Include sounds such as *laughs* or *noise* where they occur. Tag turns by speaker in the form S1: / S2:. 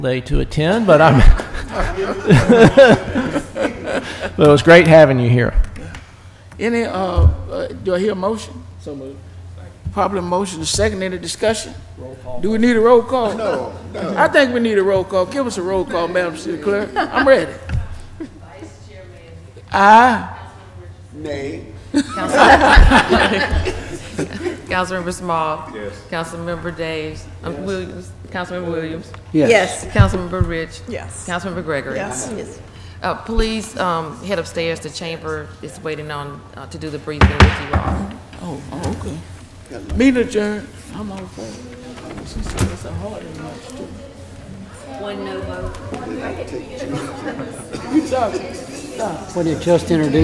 S1: day to attend, but I'm. *laughs* but it was great having you here.
S2: Any, uh, uh, do I hear a motion? So moved. Probably motion, second, any discussion? Do we need a roll call? No, no. I think we need a roll call. Give us a roll call, Madam City Clerk. I'm ready. Aye.
S3: Councilmember Small. Yes. Councilmember Daves. um, Williams. Councilmember Williams.
S4: Yes.
S3: Councilmember Rich.
S4: Yes.
S3: Councilmember Gregory.
S4: Yes.
S3: Uh, Please um, head upstairs. The chamber is waiting on, uh, to do the briefing with you all.
S2: Oh, oh, okay. Meet adjourned. I'm all for it. She said it's a hard one, March too.
S5: What it just introduced.